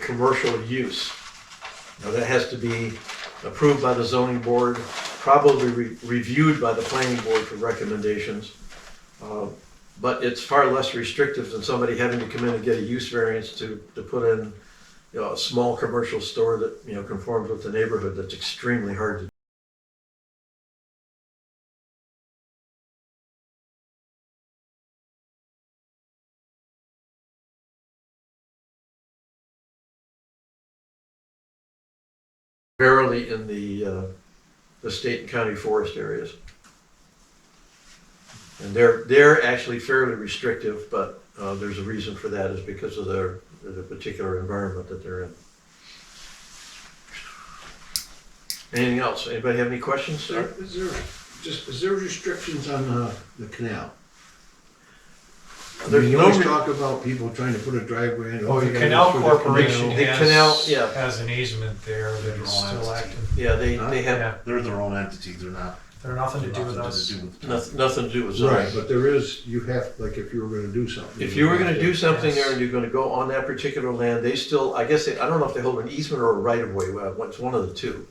commercial use. Now, that has to be approved by the zoning board, probably re- reviewed by the planning board for recommendations. Uh, But it's far less restrictive than somebody having to come in and get a use variance to, to put in, you know, a small commercial store that, you know, conforms with the neighborhood. That's extremely hard to do. Barely in the, uh, the state and county forest areas. And they're, they're actually fairly restrictive, but uh, there's a reason for that is because of their, the particular environment that they're in. Anything else? Anybody have any questions, Is there, sir? is there, just, is there restrictions on uh, the canal? I There's mean, you no always re- talk about people trying to put a driveway in. Oh, you the gotta canal go through the corporation The canal, has, yeah. has an easement there that is still active. Yeah, they, they have Yeah, They're their own entity, they're not. they're nothing to do with us. nothing to do with- noth- nothing to do with canal. Right, zoning. but there is, you have, like, if you were gonna do something. If you were gonna do something there Yes. and you're gonna go on that particular land, they still, I guess, they- I don't know if they hold an easement or a right of way, well, it's one of the two.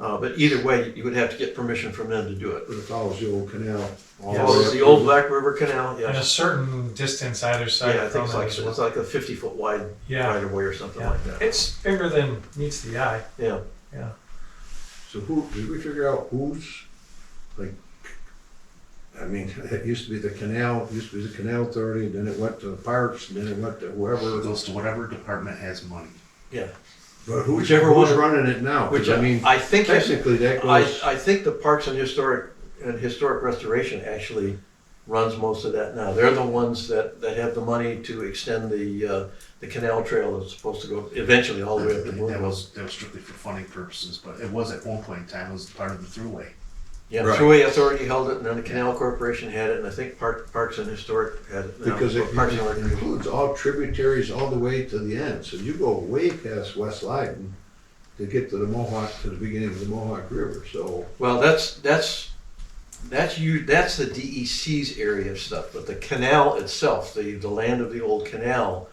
Uh, But either way, you would have to get permission from them to do it. But it follows the old canal. all Yes. way Oh, up the to- old Black River Canal, And a yes. certain distance either side Yeah, I think from it's it like, as well. it's like a fifty foot wide Yeah, right of way or something yeah. like that. It's bigger than meets the eye. Yeah, So who, did we figure out who's, like, I mean, it used to be the canal, used to be the canal authority, then it went to the parks, and then it went to It whoever. goes to whatever department has money. yeah. But who's, Whichever who's one- running it now? 'Cause Which uh, I mean, I think, I, technically that goes. I think the Parks and Historic, and Historic Restoration actually runs most of that now. They're the ones that, that have the money to extend the, uh, the canal trail that's supposed to go eventually all the way up Oh, to That Moonville. was, that was strictly for funding purposes, but it was at one point in time, it was part of the thruway. Yeah, Right. Thruway Authority held it, and then the Canal Corporation had it, and I think Park, Parks and Historic had it. now. Because it Parks and Rec- includes all tributaries all the way to the end, so you go way past West Leiden to get to the Mohawk, to the beginning of the Mohawk River, so. Well, that's, that's, that's you, that's the DEC's area of stuff, but the canal itself, the, the land of the old canal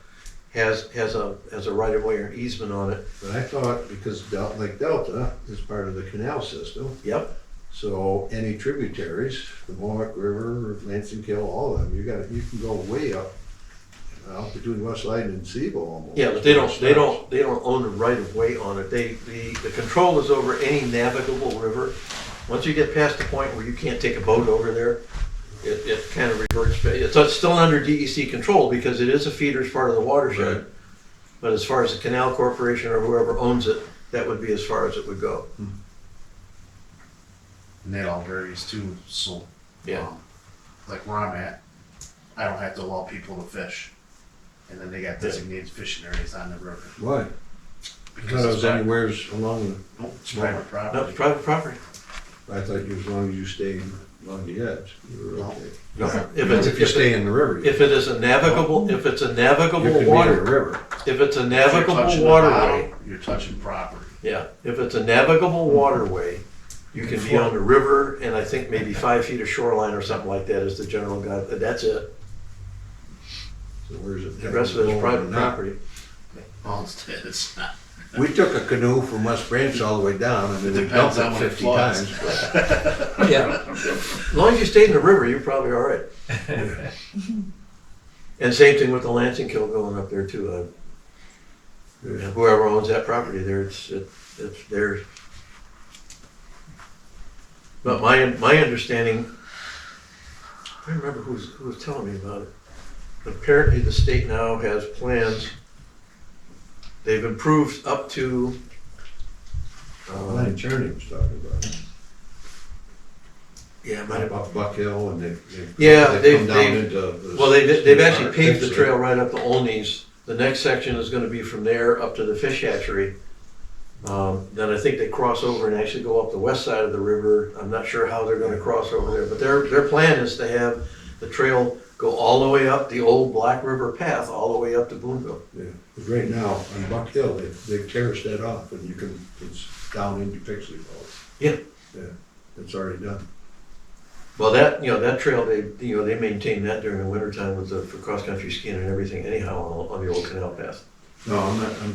has, has a, has a right of way or an easement on it. But I thought, because Del, Lake Delta is part of the canal system, Yep, so any tributaries, the Mohawk River, Lansing Kill, all of them, you gotta, you can go way up, out between West Leiden and Seville almost. yeah, but they don't, they don't, they don't own the right of way on it. They, the, the control is over any navigable river. Once you get past the point where you can't take a boat over there, it, it kind of reverts, ba- it's, it's still under DEC control because it is a feeder's part of the watershed. But as far as the canal corporation or whoever owns it, that would be as far as it would go. And that all varies too, so. um, Like where I'm at, I don't have to allow people to fish. And then they got designated fishing areas on the river. Why? Because Because I it's was private, anywheres along, no, it's private No, it's property. private property. the- I thought you, as long as you stayed along the edge, you were okay. If it's, If you if it, stay in the river. if it is a navigable, if it's a You navigable could be in the water, river. if it's a If you're touching navigable the waterway, bottom, You're touching property. yeah, if it's a navigable waterway, you can be on the river and I think maybe five feet of shoreline or something like that is the general guide, but that's it. So where's it? The rest of it is private property. Well, it's, it's not. We took a canoe from West Branch all the way down and then we Depends dumped on it when it fifty floods. times. Yeah. As long as you stay in the river, you're probably all right. And same thing with the Lansing Kill going up there too. Uh, you know, Whoever owns that property there, it's, it- it's theirs. But my, my understanding, I don't remember who was, who was telling me about it. Apparently the state now has plans. They've improved up to, Line um, Churning was talking about, it. yeah, it might Right have about Buck Hill and they've. Yeah, they've- Down they've- into. the- uh, Well, they, they've actually paved the Fix it. trail right up to Olney's. The next section is gonna be from there up to the fish hatchery. Um, then I think they cross over and actually go up the west side of the river. I'm not sure how they're gonna cross over there, but their, their plan is to have the trail go all the way up the old Black River path, all the way up to Boonville. Yeah, 'cause right now on Buck Hill, they, they terraced that off and you can, it's down into Pixley Falls. Yeah. Yeah, it's already done. Well, that, you know, that trail, they, you know, they maintain that during the wintertime with the, for cross-country skiing and everything anyhow on, on the old canal path. No, I'm not, I'm